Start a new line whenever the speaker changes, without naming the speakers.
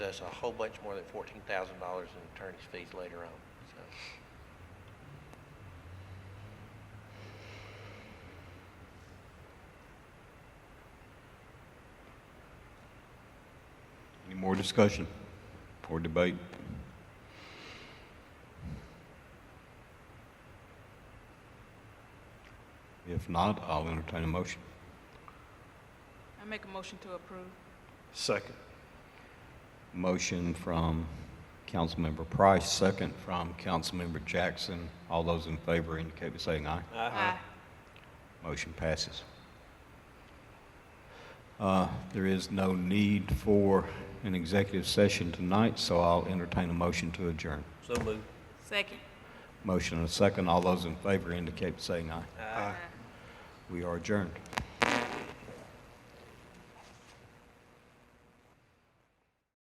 us a whole bunch more than fourteen thousand dollars in attorney's fees later on, so.
Any more discussion or debate? If not, I'll entertain a motion.
I make a motion to approve.
Second.
Motion from Councilmember Price, second from Councilmember Jackson. All those in favor indicate by saying aye.
Aye.
Motion passes. Uh, There is no need for an executive session tonight, so I'll entertain a motion to adjourn.
So moved.
Second.
Motion and a second. All those in favor indicate by saying aye.
Aye.
We are adjourned.